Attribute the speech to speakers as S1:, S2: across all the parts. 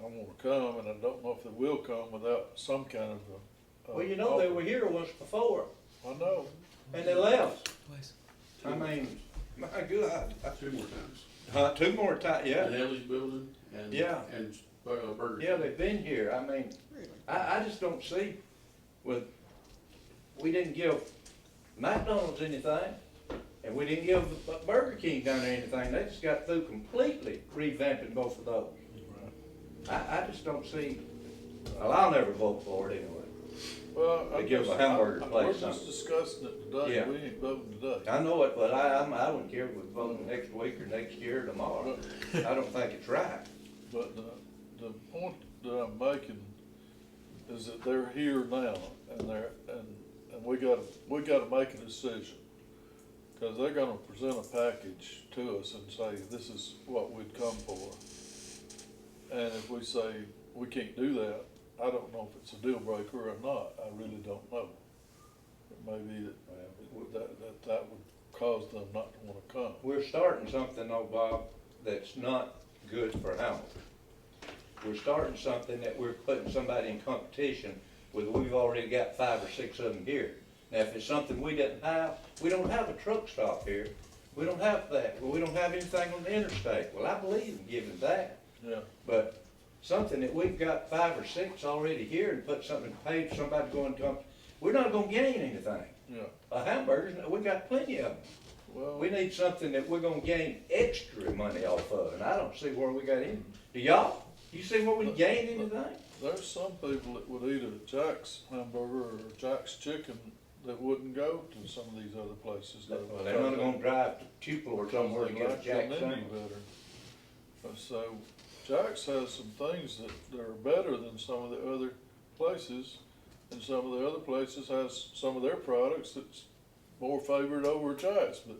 S1: gonna come, and I don't know if they will come without some kind of a. a
S2: Well, you know, they
S1: offer.
S2: were here once before,
S1: I know,
S2: and they left.
S3: I mean, my God,
S4: Two more times.
S3: uh, two more times, yeah,
S4: The Haley's building and,
S3: Yeah.
S4: and Bur- uh, Burger.
S3: yeah, they've been here, I mean, I, I just don't see with, we didn't give McDonald's anything, and we didn't give Bu- Burger King down there anything, they just got through completely revamping both of those. I, I just don't see, well, I'll never vote for it anyway.
S1: well. I
S3: They give
S1: guess-
S3: a hamburger
S1: I- I-
S3: place
S1: We're just
S3: something.
S1: discussing it today,
S3: Yeah.
S1: we ain't voting today.
S3: I know it, but I, I'm, I wouldn't care if we vote next week or next year or tomorrow, I don't think it's right.
S1: But the, the point that I'm making is that they're here now, and they're, and, and we gotta, we gotta make a decision. Cause they're gonna present a package to us and say, this is what we'd come for. And if we say, we can't do that, I don't know if it's a deal breaker or not, I really don't know. It may be that, that, that, that would cause them not to wanna come.
S3: We're starting something though, Bob, that's not good for Hamilton. We're starting something that we're putting somebody in competition with, we've already got five or six of them here. Now, if it's something we didn't have, we don't have a truck stop here, we don't have that, well, we don't have anything on the interstate, well, I believe in giving that.
S1: Yeah,
S3: But something that we've got five or six already here and put something paid, somebody going to come, we're not gonna gain anything.
S1: yeah,
S3: A hamburger, we got plenty of them.
S1: well.
S3: We need something that we're gonna gain extra money off of, and I don't see where we got any. Do y'all? You see where we gained anything?
S1: There's some people that would eat a Jack's hamburger or Jack's chicken that wouldn't go to some of these other places. though.
S3: Well, They're not gonna drive to Tupelo or somewhere to
S1: They
S3: get a
S1: like
S3: jack
S1: them any
S3: sandwich.
S1: better. Uh, So Jack's has some things that, that are better than some of the other places. And some of the other places has some of their products that's more favored over Jack's, but,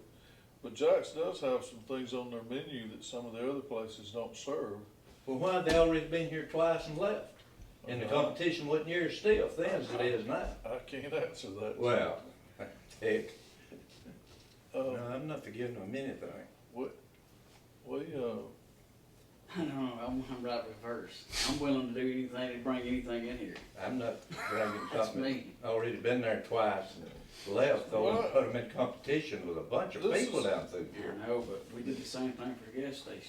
S1: but Jack's does have some things on their menu that some of the other places don't serve.
S3: Well, why, they already been here twice and left, and the
S1: Uh,
S3: competition wasn't near as stiff then as it is now.
S1: I can't answer that.
S3: Well, heck,
S1: Uh,
S3: no, I'm not forgiving them anything.
S1: What, we, uh,
S5: I don't know, I'm, I'm right reverse. I'm willing to do anything to bring anything in here.
S3: I'm not bringing
S5: That's
S3: something,
S5: me.
S3: already been there twice and left, though, and
S1: Well,
S3: put them in competition with a bunch of
S1: this is-
S3: people down through here.
S5: I know, but we did the same thing for gas stations.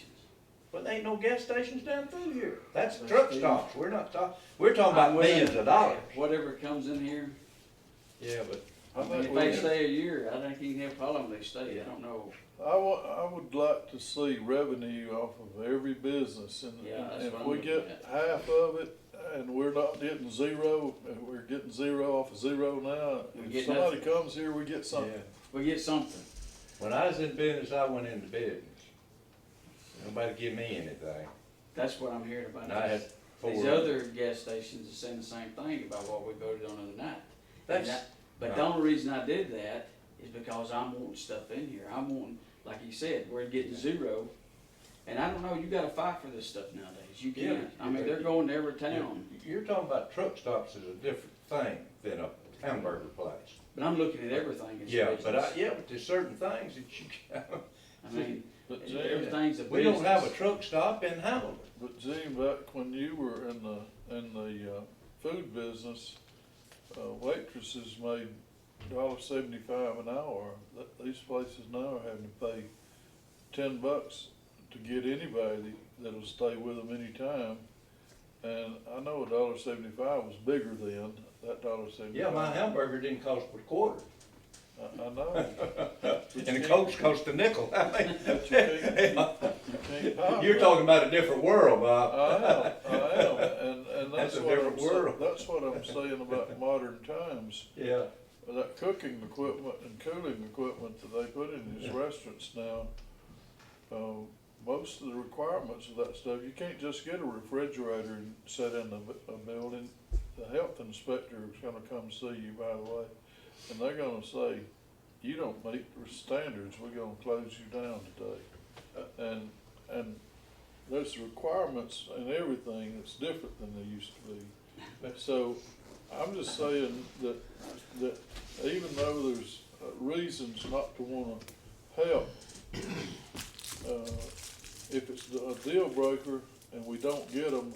S3: But there ain't no gas stations down through here. That's
S5: That's
S3: truck
S5: true.
S3: stops. We're not talking, we're talking about
S5: I'm willing-
S3: millions of dollars.
S5: Whatever comes in here,
S3: Yeah, but.
S1: I
S5: and
S1: think
S5: if
S1: we,
S5: they stay a year, I think you can have a problem if they stay, I don't know.
S1: I wa- I would like to see revenue off of every business and and
S5: Yeah, that's what
S1: if
S5: I'm
S1: we
S5: looking
S1: get
S5: at.
S1: half of it and we're not getting zero, and we're getting zero off of zero now.
S5: We
S1: If
S5: get
S1: somebody
S5: nothing.
S1: comes here, we get
S3: yeah.
S1: something.
S5: We get something.
S3: When I was in business, I went into business. Nobody give me anything.
S5: That's what I'm hearing about.
S3: And I had
S5: These-
S3: four.
S5: These other gas stations are saying the same thing about what we voted on the other night. And
S3: That's,
S5: that- But the
S3: Right.
S5: only reason I did that is because I'm wanting stuff in here. I'm wanting, like you said, we're getting zero. And I don't know, you gotta fight for this stuff nowadays. You
S3: Yeah,
S5: can't. I mean,
S3: you-
S5: they're going to every town.
S3: you're talking about truck stops is a different thing than a hamburger place.
S5: But I'm looking at everything as
S3: Yeah,
S5: business.
S3: but I, yeah, but there's certain things that you, can't-
S5: I mean,
S1: But Gene,
S5: everything's a business.
S3: we don't have a truck stop in Hamilton.
S1: but Gene, back when you were in the, in the, uh, food business, uh, waitresses made dollar seventy-five an hour. Th- These places now are having to pay ten bucks to get anybody that'll stay with them anytime. And I know a dollar seventy-five was bigger then, that dollar seventy-five.
S3: Yeah, my hamburger didn't cost but a quarter.
S1: I, I know.
S3: And the Cokes cost a nickel. I mean,
S1: But you can't- you can't buy
S3: You're
S1: that.
S3: talking about a different world,
S1: I
S3: Bob.
S1: am, I am, and, and
S3: That's
S1: that's
S3: a
S1: what I'm,
S3: different
S1: sa-
S3: world.
S1: that's what I'm saying about modern times.
S3: Yeah.
S1: That cooking equipment and cooling equipment that they put in these
S3: Yeah.
S1: restaurants now, uh, most of the requirements of that stuff, you can't just get a refrigerator and set in a, bu- a building. The health inspector is gonna come see you, by the way, and they're gonna say, you don't meet the standards, we're gonna close you down today. And, and there's requirements and everything that's different than they used to be. So I'm just saying that, that even though there's uh, reasons not to wanna help, uh, if it's a deal breaker and we don't get them,